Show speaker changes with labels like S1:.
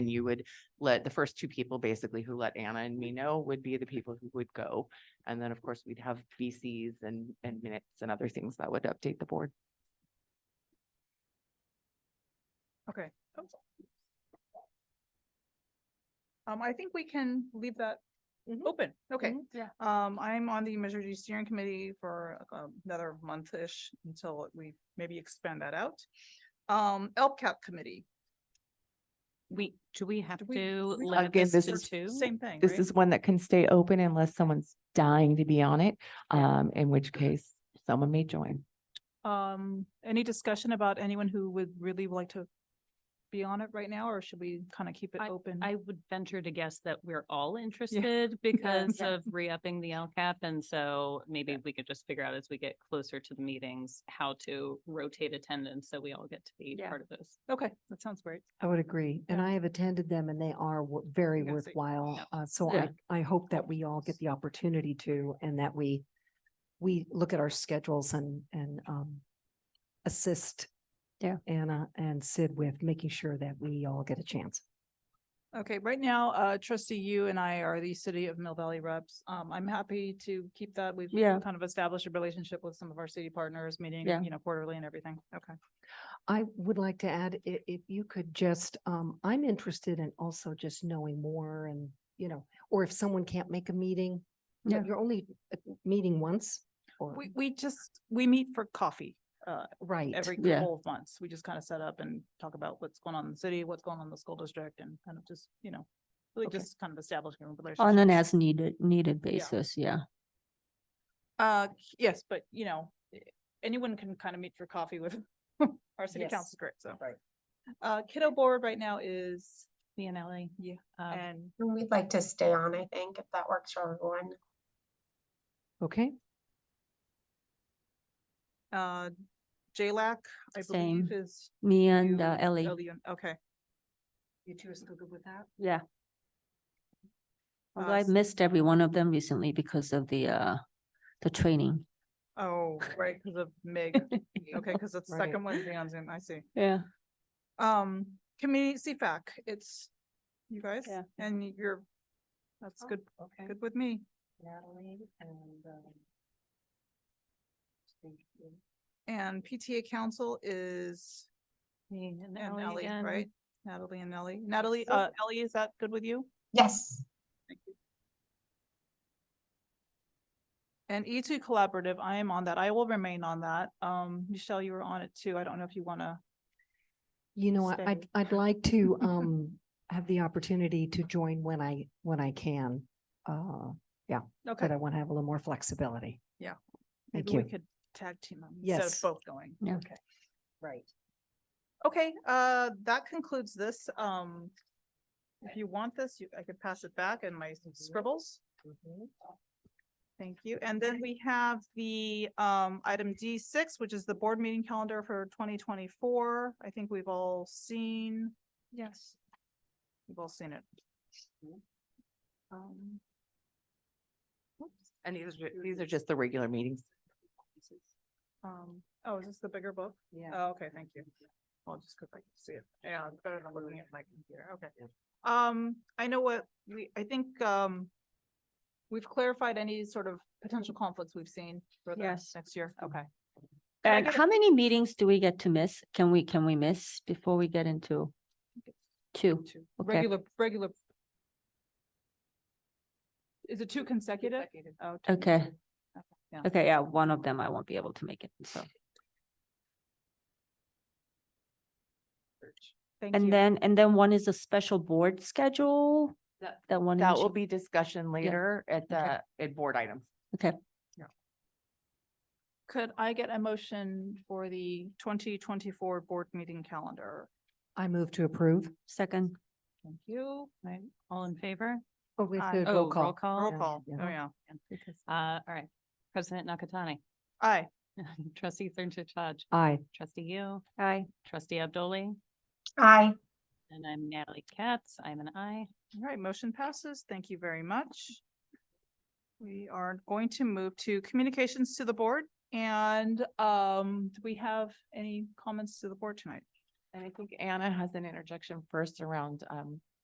S1: And you would let the first two people basically who let Anna and me know would be the people who would go. And then, of course, we'd have VCs and, and minutes and other things that would update the board.
S2: Okay. Um, I think we can leave that
S1: Mhm.
S2: open. Okay.
S1: Yeah.
S2: Um, I'm on the Measure G steering committee for uh, another month-ish until we maybe expand that out. Um, LCAP committee,
S3: We, do we have
S2: Do we-
S3: to
S2: we-
S3: limit
S1: Again, this
S3: this to
S1: is
S3: two?
S2: same thing,
S1: This
S2: right?
S1: is one that can stay open unless someone's dying to be on it, um, in which case someone may join.
S2: Um, any discussion about anyone who would really like to be on it right now, or should we kind of keep it open?
S3: I would venture to guess that we're all interested because
S2: Yeah.
S3: of re-upping the LCAP. And so maybe we could just figure out as we get closer to the meetings, how to rotate attendance. So we all get to be
S2: Yeah.
S3: part of this.
S2: Okay, that sounds great.
S4: I would agree, and
S2: Yeah.
S4: I have attended them and they are wo- very
S2: Yes, they-
S4: worthwhile. Uh, so
S1: Yeah.
S4: I, I hope that we all get the opportunity to and that we, we look at our schedules and, and, um, assist
S5: Yeah.
S4: Anna and Sid with making sure that we all get a chance.
S2: Okay, right now, uh, trustee, you and I are the city of Mill Valley reps. Um, I'm happy to keep that. We've
S5: Yeah.
S2: kind of established a relationship with some of our city partners, meeting,
S5: Yeah.
S2: you know, quarterly and everything. Okay.
S4: I would like to add, i- if you could just, um, I'm interested in also just knowing more and, you know, or if someone can't make a meeting, you know,
S5: Yeah.
S4: you're only uh, meeting once or,
S2: We, we just, we meet for coffee, uh,
S4: right.
S2: every
S5: Yeah.
S2: couple of months. We just kind of set up and talk about what's going on in the city, what's going on in the school district and kind of just, you know, really
S4: Okay.
S2: just kind of establishing a relationship.
S5: On an as needed, needed
S2: Yeah.
S5: basis, yeah.
S2: Uh, yes, but you know, eh, anyone can kind of meet for coffee with our city
S4: Yes.
S2: council, great, so.
S4: Right.
S2: Uh, kiddo board right now is,
S3: Leonelli?
S2: Yeah.
S3: um,
S2: and
S6: We'd like to stay on, I think, if that works for everyone.
S4: Okay,
S2: uh, JLAC, I
S5: Same.
S2: believe is.
S5: Me and
S2: you
S5: uh, Ellie,
S2: and- Okay,
S4: you two are still good with that?
S5: yeah. Although I
S2: Us.
S5: missed every one of them recently because of the, uh, the training.
S2: oh, right, because of Meg, okay, because it's
S4: Right.
S2: second Wednesday on Zoom, I see.
S5: Yeah.
S2: Um, committee CFAC, it's you guys
S5: Yeah.
S2: and you're, that's good,
S4: Okay.
S2: good with me.
S4: Natalie and, um.
S2: And PTA council is
S3: Me and
S2: And
S3: Ellie
S2: Ellie,
S3: again.
S2: right? Natalie and Ellie. Natalie, uh, Ellie, is that good with you?
S6: Yes,
S2: And E two collaborative, I am on that. I will remain on that. Um, Michelle, you were on it too. I don't know if you wanna.
S4: You know, I- I'd,
S2: Steady.
S4: I'd like to, um, have the opportunity to join when I, when I can. Uh,
S2: Okay.
S4: but I want to have a little more flexibility.
S2: Yeah.
S4: Thank
S2: Maybe we
S4: you.
S2: could tag team them instead of
S4: Yes.
S2: both going.
S5: Yeah.
S4: Okay, right.
S2: Okay, uh, that concludes this. Um, if you want this, you, I could pass it back in my scribbles. Mm-hmm. Thank you. And then we have the um item D six, which is the board meeting calendar for twenty twenty-four. I think we've all seen. Yes. We've all seen it. Um,
S1: And these are, these are just the regular meetings.
S2: um, oh, is this the bigger book?
S4: Yeah.
S2: Oh, okay, thank you. Well, just because I can see it. Yeah, it's better than looking at my computer. Okay. Um, I know what we, I think, um, we've clarified any sort of potential conflicts we've seen for the
S5: Yes.
S2: next year. Okay. Can I
S5: And
S2: get a-
S5: how many meetings do we get to miss? Can we, can we miss before we get into two?
S2: Two.
S5: Okay.
S2: Regular, regular. Is it two consecutive? Oh, two
S5: Okay.
S2: consecutive. Yeah.
S5: Okay, yeah, one of them I won't be able to make it, so.
S2: Thank you.
S5: And then, and then one is a special board schedule?
S1: That-
S5: That one. in
S1: That will
S5: Ju-
S1: be discussion later at the,
S5: Okay.
S1: at board items.
S2: Could I get a motion for the twenty twenty-four board meeting calendar?
S4: I move to approve.
S5: Second,
S2: Thank you.
S3: Right, all in favor?
S4: Oh, we have
S2: Aye.
S4: to roll
S3: Oh,
S4: call.
S2: Roll
S4: Yeah,
S2: call. Oh,
S4: yeah.
S2: yeah.
S3: Uh, all right, President Nakatani,
S2: Aye.
S3: trustee Cernsa Chaj,
S4: Aye.
S3: trustee you,
S5: aye.
S3: trustee Abdoli,
S6: aye.
S3: and I'm Natalie Katz. I'm an I.
S2: All right, motion passes. Thank you very much. We are going to move to communications to the board and um, do we have any comments to the board tonight?
S1: And I think Anna has an interjection first around, um,